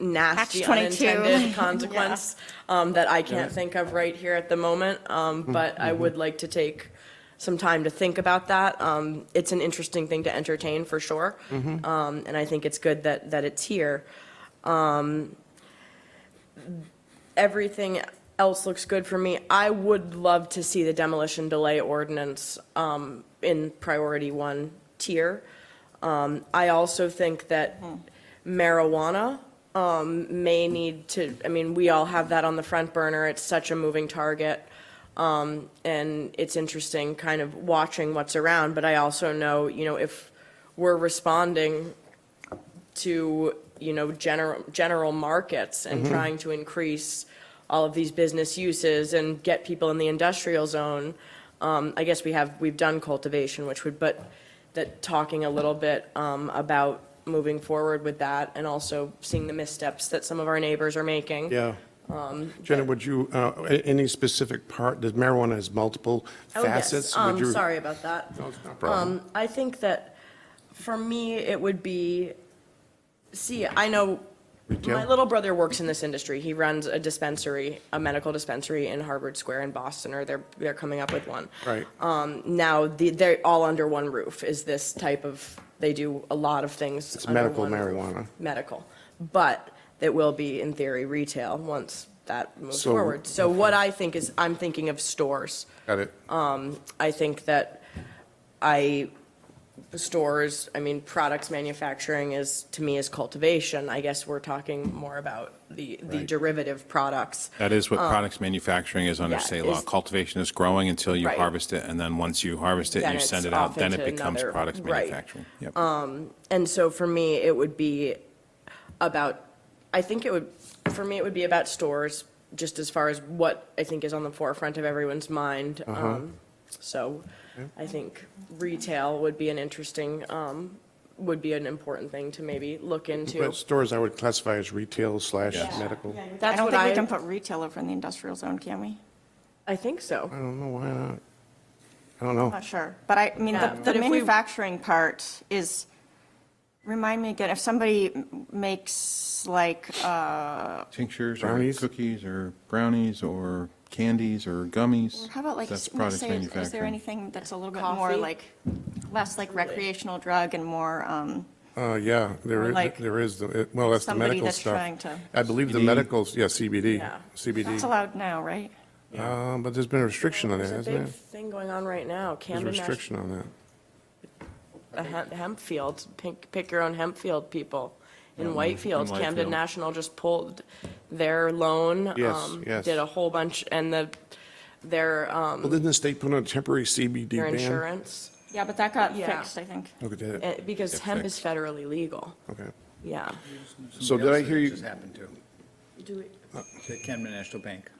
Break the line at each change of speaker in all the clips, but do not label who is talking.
nasty
Catch 22.
unintended consequence um, that I can't think of right here at the moment. Um, But I would like to take some time to think about that. Um, It's an interesting thing to entertain, for sure. Um, And I think it's good that, that it's here. Um, everything else looks good for me. I would love to see the demolition delay ordinance um, in priority one tier. Um, I also think that marijuana um, may need to, I mean, we all have that on the front burner. It's such a moving target. Um, And it's interesting kind of watching what's around, but I also know, you know, if we're responding to, you know, general, general markets and trying to increase all of these business uses and get people in the industrial zone. Um, I guess we have, we've done cultivation, which would, but that talking a little bit, um, about moving forward with that and also seeing the missteps that some of our neighbors are making.
Yeah. Um,
Um,
Jenna, would you, uh, a- any specific part, does marijuana has multiple
Oh, yes.
facets? Would
Um,
you-
sorry about that.
No, it's not a problem.
Um, I think that for me, it would be, see, I know, my
Retail?
little brother works in this industry. He runs a dispensary, a medical dispensary in Harvard Square in Boston, or they're, they're coming up with one.
Right.
Um, now, the, they're all under one roof is this type of, they do a lot of things.
It's
under
medical
one roof.
marijuana.
Medical, but it will be in theory retail once that moves
So-
forward. So what I think is, I'm thinking of stores.
Got it.
um, I think that I, stores, I mean, products manufacturing is, to me, is cultivation. I guess we're talking more about the, the
Right.
derivative products.
That is what products manufacturing is under
Um, yeah,
state law.
is-
Cultivation is growing until you
Right.
harvest it, and then once you harvest it
Then
and you send
it's
it
off
out, then it
into
becomes
another-
products
right. Um,
manufacturing. Yep.
And so for me, it would be about, I think it would, for me, it would be about stores, just as far as what I think is on the forefront of everyone's mind. Um, So I think retail would be an interesting, um, would be an important thing to maybe look into.
Well, stores I would classify as retail slash
Yes.
medical.
I
That's
don't
what
think we
I,
can put retail over in the industrial zone, can we?
I think so.
I don't know, why not? I don't know.
Not sure, but I, I mean,
Yeah,
the-
but
the
if we-
manufacturing part is, remind me again, if somebody m- makes like, uh,
Tinctures or
Brownies?
cookies or brownies or candies or gummies.
how about like,
That's
s-
products
say, is- is there
manufacturing.
anything that's a little bit more
Coffee?
like, less like recreational drug and more, um,
Uh, yeah,
Or
there is,
like
there is, the- it- well, that's the
somebody
medical
that's
stuff.
trying to-
I believe the
CBD.
medicals, yeah, CBD,
Yeah.
that's
CBD.
allowed now, right?
Uh, But there's been a restriction on that,
There's a
hasn't
big
there?
thing going on right now,
There's a
Camden National,
restriction on
the
that.
hemp, hemp fields, pick, pick your own hemp field, people. In Whitefield,
in
Camden
Whitefield.
National just pulled their loan.
Yes,
um,
yes.
Did a whole bunch, and the, their,
Well,
um,
didn't the state put on a temporary CBD
their
ban?
insurance,
Yeah, but that got
Yeah.
fixed, I think.
Look at
eh,
that,
because
Get
hemp is
fixed.
federally legal,
okay.
yeah.
So did I hear you-
Just happened to,
Do,
the Camden National Bank.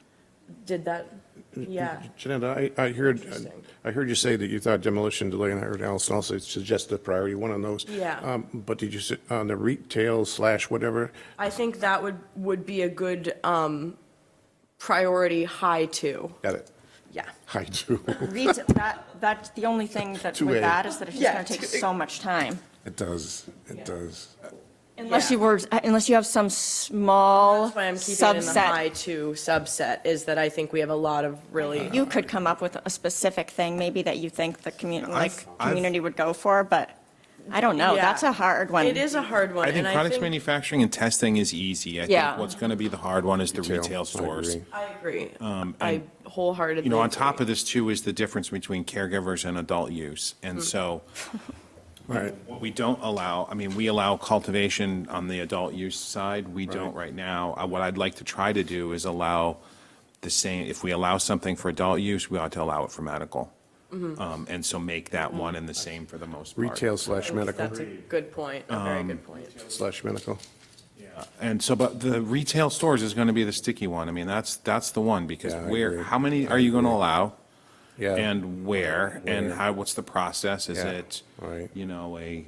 did that,
Mm-hmm.
yeah.
Jeanette, I, I heard,
Interesting.
I heard you say that you thought demolition delay, and I heard Allison also suggest a priority one on those.
Yeah.
Um, But did you, s- on the retail slash whatever,
I think that would, would be a good, um, priority high two,
got it,
yeah.
I do,
Retail, that, that's the only thing that,
Too
with
bad.
that is that it's just
Yeah,
gonna take
too-
so much time.
it does, it does.
Unless
Yeah.
you were, uh, unless you have some small
That's why I'm keeping it in the high
subset.
two subset, is that I think we have a lot of
Uh-huh.
really,
You could come up with a specific thing, maybe that you think the community,
I've-
like, community would go for, but I don't know,
Yeah.
Oh, that's a hard one.
it is a hard one,
I think
and I
products
think,
manufacturing and testing is easy. I
Yeah.
think what's going to be the hard one is the
Retail, I
retail stores.
agree.
I agree. I wholeheartedly.
Um, You know, on
agree.
top of this too is the difference between caregivers and adult use.
Mm.
And so
Right,
What we don't allow, I mean, we allow cultivation on the adult use side, we don't right now. Uh, What I'd like to try to do is allow the same, if we allow something for adult use, we ought to allow it for medical. Um, And so make that one and the same for the most part.
Mm-hmm. retail slash medical,
That's a good point, a very good
Um,
point.
slash medical.
And so, but the retail stores is going to be the sticky one. I mean, that's, that's the one, because
Yeah, I
where,
agree.
how many are you going to allow?
Yeah.
And where, and
Where.
how, what's the process? Is
Yeah,
it,
right.
you know, a,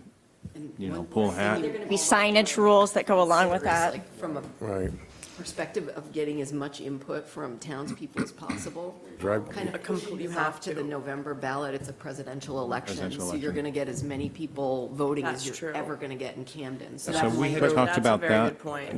you know, pool hat?
Be signage rules that go along with that.
Like, From a
Right,
perspective of getting as much input from townspeople as possible.
Drive-
Kind of pushing
you
this
have
off to the November ballot, it's a presidential election,
Presidential
so you're
election.
going to get as many people voting
That's
as
true.
you're ever going to get in Camden. So
So
that's
we
why
had talked
That's a
about
very
that.
good point.